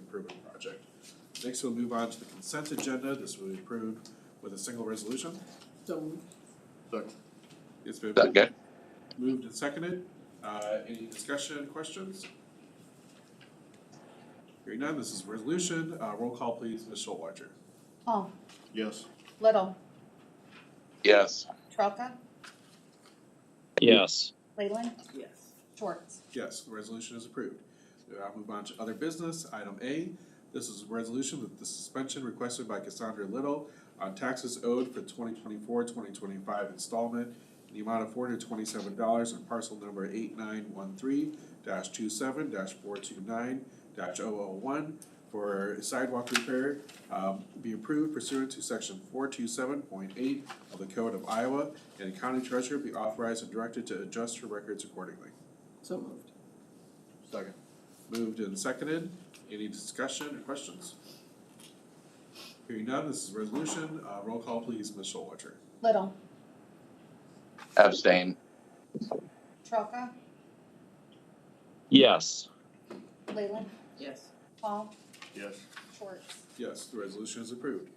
improvement project. Next, we'll move on to the consent agenda. This will be approved with a single resolution. So moved. It's been Second. moved and seconded. Uh, any discussion, questions? Hearing none, this is a resolution. Uh, roll call please, Ms. Schulweiser. Hall, Yes. Little, Yes. Trelka, yes, Leyland, yes. Schwartz. Yes, the resolution is approved. I'll move on to other business, item A. This is a resolution with the suspension requested by Cassandra Little on taxes owed for 2024-2025 installment in the amount of four hundred twenty-seven dollars on parcel number eight nine one three dash two seven dash four two nine dash oh oh one for sidewalk repair, um, be approved pursuant to section four two seven point eight of the Code of Iowa, and the county treasurer be authorized and directed to adjust her records accordingly. So moved. Second. Moved and seconded. Any discussion or questions? Hearing none, this is a resolution. Uh, roll call please, Ms. Schulweiser. Little, Abstain. Trelka, yes, Leyland, Yes. Hall, Yes. Schwartz. Yes, the resolution is approved.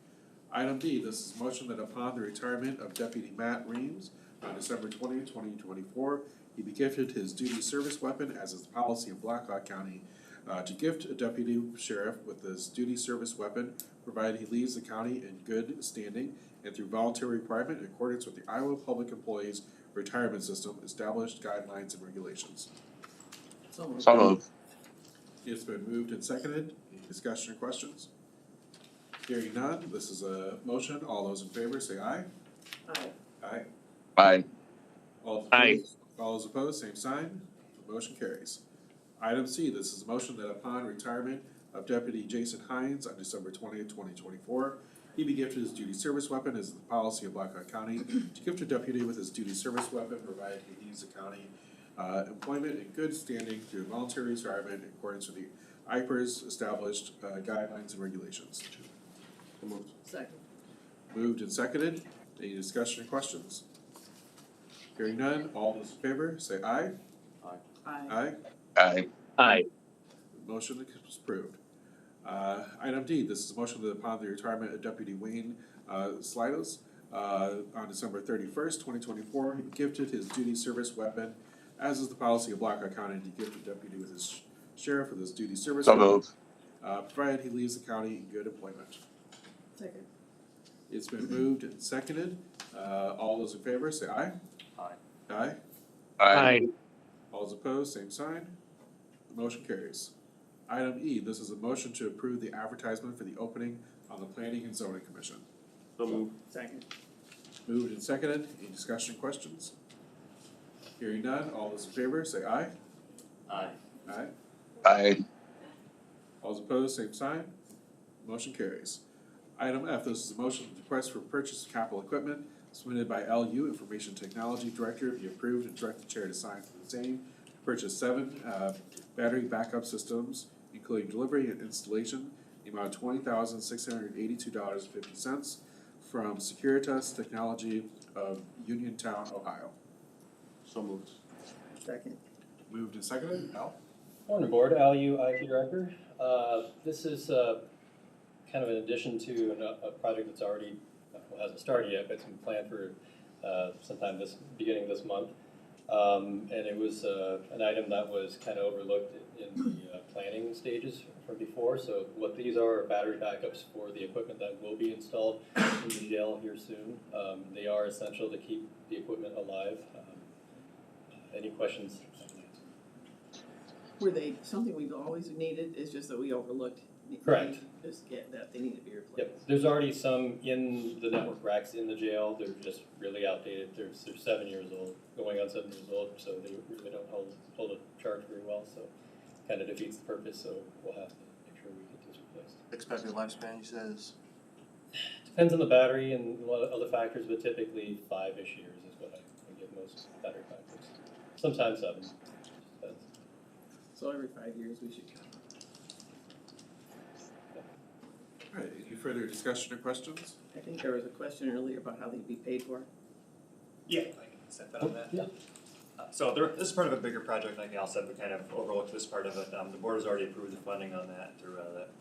Item D, this is motion that upon the retirement of Deputy Matt Reams on December 20, 2024, he be gifted his duty service weapon as is the policy of Blackhawk County uh, to gift a deputy sheriff with his duty service weapon, provided he leaves the county in good standing and through voluntary requirement in accordance with the Iowa Public Employees Retirement System established guidelines and regulations. So moved. So moved. It's been moved and seconded. Any discussion or questions? Hearing none, this is a motion. All those in favor say aye. Aye. Aye. Aye. All Aye. opposed, all those opposed, same sign. The motion carries. Item C, this is a motion that upon retirement of Deputy Jason Hines on December twentieth, twenty twenty-four, he be gifted his duty service weapon as the policy of Blackhawk County to gift a deputy with his duty service weapon provided he leaves the county uh, employment in good standing through voluntary retirement in accordance with the IPER's established uh, guidelines and regulations. Second. Moved and seconded. Any discussion or questions? Hearing none, all those in favor, say aye. Aye. Aye. Aye. aye, Motion is approved. Uh, item D, this is a motion that upon the retirement of Deputy Wayne, uh, Slidos, uh, on December thirty-first, twenty twenty-four, he gifted his duty service weapon, as is the policy of Blackhawk County to gift a deputy with his sheriff with his duty service. So weapon, moved. Uh, provided he leaves the county in good employment. Second. It's been moved and seconded. Uh, all those in favor, say aye. Aye. Aye. Aye. aye, All those opposed, same sign. The motion carries. Item E, this is a motion to approve the advertisement for the opening on the Planning and Zoning Commission. So moved. Second. Moved and seconded. Any discussion, questions? Hearing none. All those in favor, say aye. Aye. Aye. Aye. All those opposed, same sign. Motion carries. Item F, this is a motion to request for purchase of capital equipment submitted by LU Information Technology Director, be approved and direct the chair to sign for the same. Purchase seven, uh, battery backup systems, including delivery and installation, the amount of twenty thousand six hundred eighty-two dollars and fifty cents from Securitas Technology of Uniontown, Ohio. So moved. Second. Moved and seconded, Al? Morning, Board. Al Yu, IT Director. Uh, This is uh, kind of an addition to an- a project that's already, well, hasn't started yet, but it's been planned for uh, sometime this, beginning of this month. Um, And it was uh, an item that was kind of overlooked in the uh, planning stages from before. So what these are are battery backups for the equipment that will be installed in the jail here soon. Um, They are essential to keep the equipment alive. Um, Any questions? Were they, something we've always needed, it's just that we overlooked. the- Correct. Just get that, they need to be replaced. Yep, there's already some in the network racks in the jail, they're just really outdated, they're, they're seven years old, going on seven years old, so they really don't hold, hold a charge very well, so kind of defeats the purpose, so we'll have to make sure we get this replaced. Expected lifespan, he says. Depends on the battery and a lot of other factors, but typically five-ish years is what I I give most battery factors, sometimes seven, depends. So every five years, we should come. All right, any further discussion or questions? I think there was a question earlier about how they'd be paid for. Yeah, I can set that on that. Yeah. Uh, So there, this is part of a bigger project, like Al said, we kind of overlooked this part of it, um, the board has already approved the funding on that through, uh, that